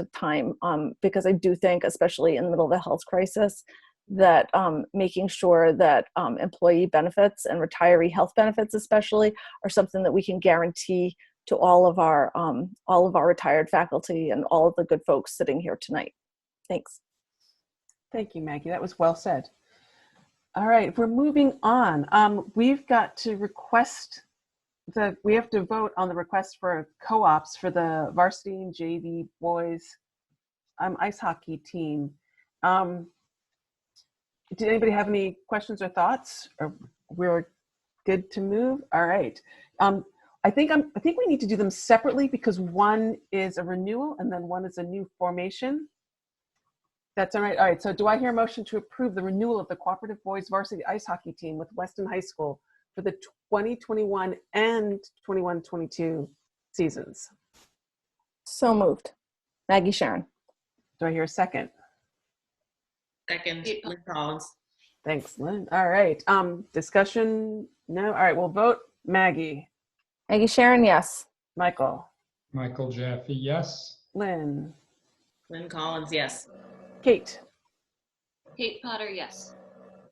of time um, because I do think, especially in the middle of the health crisis, that um, making sure that um, employee benefits and retiree health benefits, especially, are something that we can guarantee to all of our um, all of our retired faculty and all of the good folks sitting here tonight. Thanks. Thank you, Maggie. That was well said. All right, we're moving on. Um, we've got to request the, we have to vote on the request for co-ops for the varsity and JV boys um, ice hockey team. Um, did anybody have any questions or thoughts? Or we're good to move? All right. Um, I think I'm, I think we need to do them separately because one is a renewal and then one is a new formation. That's all right. All right. So do I hear a motion to approve the renewal of the cooperative boys varsity ice hockey team with Weston High School for the 2021 and 21-22 seasons? So moved. Maggie Sharon. Do I hear a second? Second, Lynn Collins. Thanks, Lynn. All right. Um, discussion? No. All right. We'll vote. Maggie, Maggie Sharon, yes. Michael, Michael Jaffe, yes. Lynn, Lynn Collins, yes. Kate, Kate Potter, yes.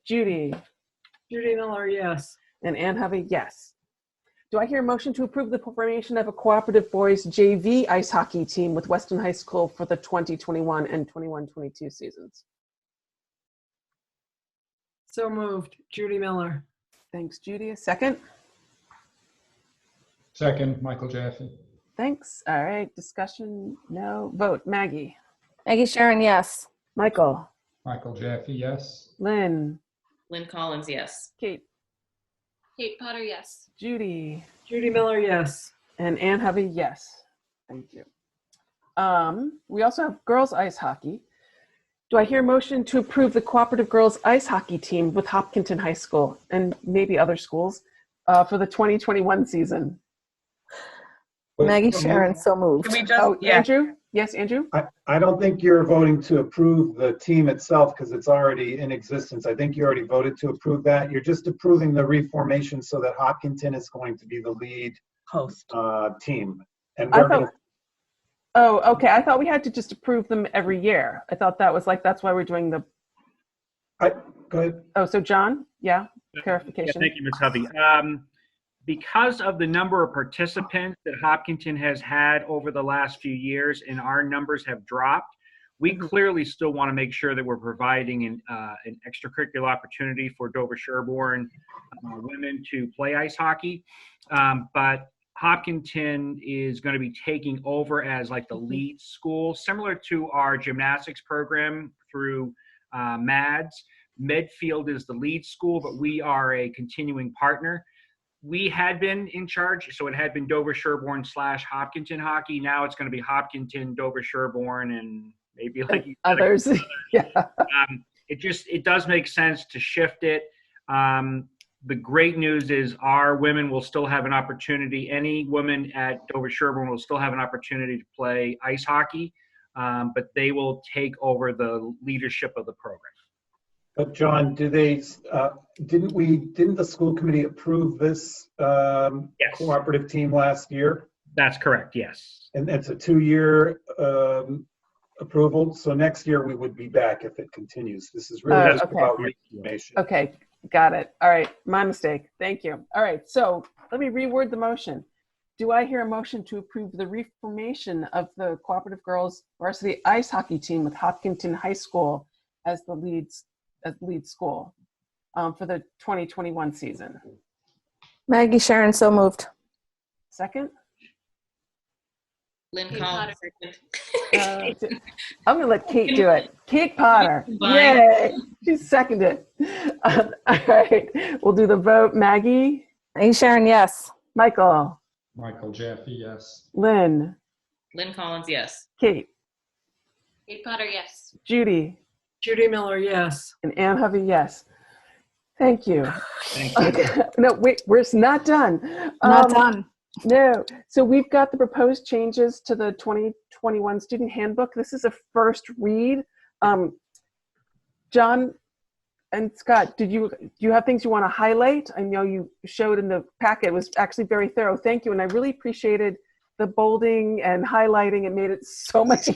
Judy, Judy Miller, yes. and Ann Hovey, yes. Do I hear a motion to approve the formation of a cooperative boys JV ice hockey team with Weston High School for the 2021 and 21-22 seasons? So moved. Judy Miller. Thanks, Judy. A second? Second, Michael Jaffe. Thanks. All right. Discussion? No. Vote. Maggie, Maggie Sharon, yes. Michael, Michael Jaffe, yes. Lynn, Lynn Collins, yes. Kate, Kate Potter, yes. Judy, Judy Miller, yes. And Anne Hovey, yes. Thank you. Um, we also have girls ice hockey. Do I hear a motion to approve the cooperative girls ice hockey team with Hopkinton High School and maybe other schools uh, for the 2021 season? Maggie Sharon, so moved. Can we just, Oh, yeah, Andrew? Yes, Andrew? I don't think you're voting to approve the team itself because it's already in existence. I think you already voted to approve that. You're just approving the reformation so that Hopkinton is going to be the lead host. uh, team. And I we're thought, going oh, okay. I thought we had to just approve them every year. I thought that was like, that's why we're doing the, to, oh, so John? Yeah, Yeah, clarification. Thank you, Ms. Hovey. Um, Because of the number of participants that Hopkinton has had over the last few years and our numbers have dropped, we clearly still want to make sure that we're providing an, uh, an extracurricular opportunity for Dover Sherborne uh, women to play ice hockey. Um, But Hopkinton is going to be taking over as like the lead school, similar to our gymnastics program through uh, MADS. Medfield is the lead school, but we are a continuing partner. We had been in charge, so it had been Dover Sherborne slash Hopkinton hockey. Now it's going to be Hopkinton, Dover Sherborne, and maybe like you said, Others? yeah. um, it just it does make sense to shift it. Um, the great news is our women will still have an opportunity. Any woman at Dover Sherburne will still have an opportunity to play ice hockey, um, but they will take over the leadership of the program. but John, do they, uh, didn't we, didn't the school committee approve this um, Yes, cooperative team last year? that's correct. Yes. And it's a two-year um, approval, so next year we would be back if it continues. This is Uh, really just okay. about reformation. Okay, got it. All right, my mistake. Thank you. All right, so let me reword the motion. Do I hear a motion to approve the reformation of the Cooperative Girls Varsity Ice Hockey Team with Hopkinton High School as the leads as lead school um, for the 2021 season? Maggie Sharon, so moved. Second, Lynn Kate Collins, Uh, second. I'm gonna let Kate do it. Kate Potter, Combine. yay! She seconded. Um, all right, we'll do the vote. Maggie, Maggie Sharon, yes. Michael, Michael Jaffe, yes. Lynn, Lynn Collins, yes. Kate, Kate Potter, yes. Judy, Judy Miller, yes. And Anne Hovey, yes. Thank you. Thank you. no, wait, we're s- not done. Not Um, done. No. So we've got the proposed changes to the 2021 student handbook. This is a first read. Um, John and Scott, did you do you have things you want to highlight? I know you showed in the packet it was actually very thorough. Thank you, and I really appreciated the bolding and highlighting. It made it so much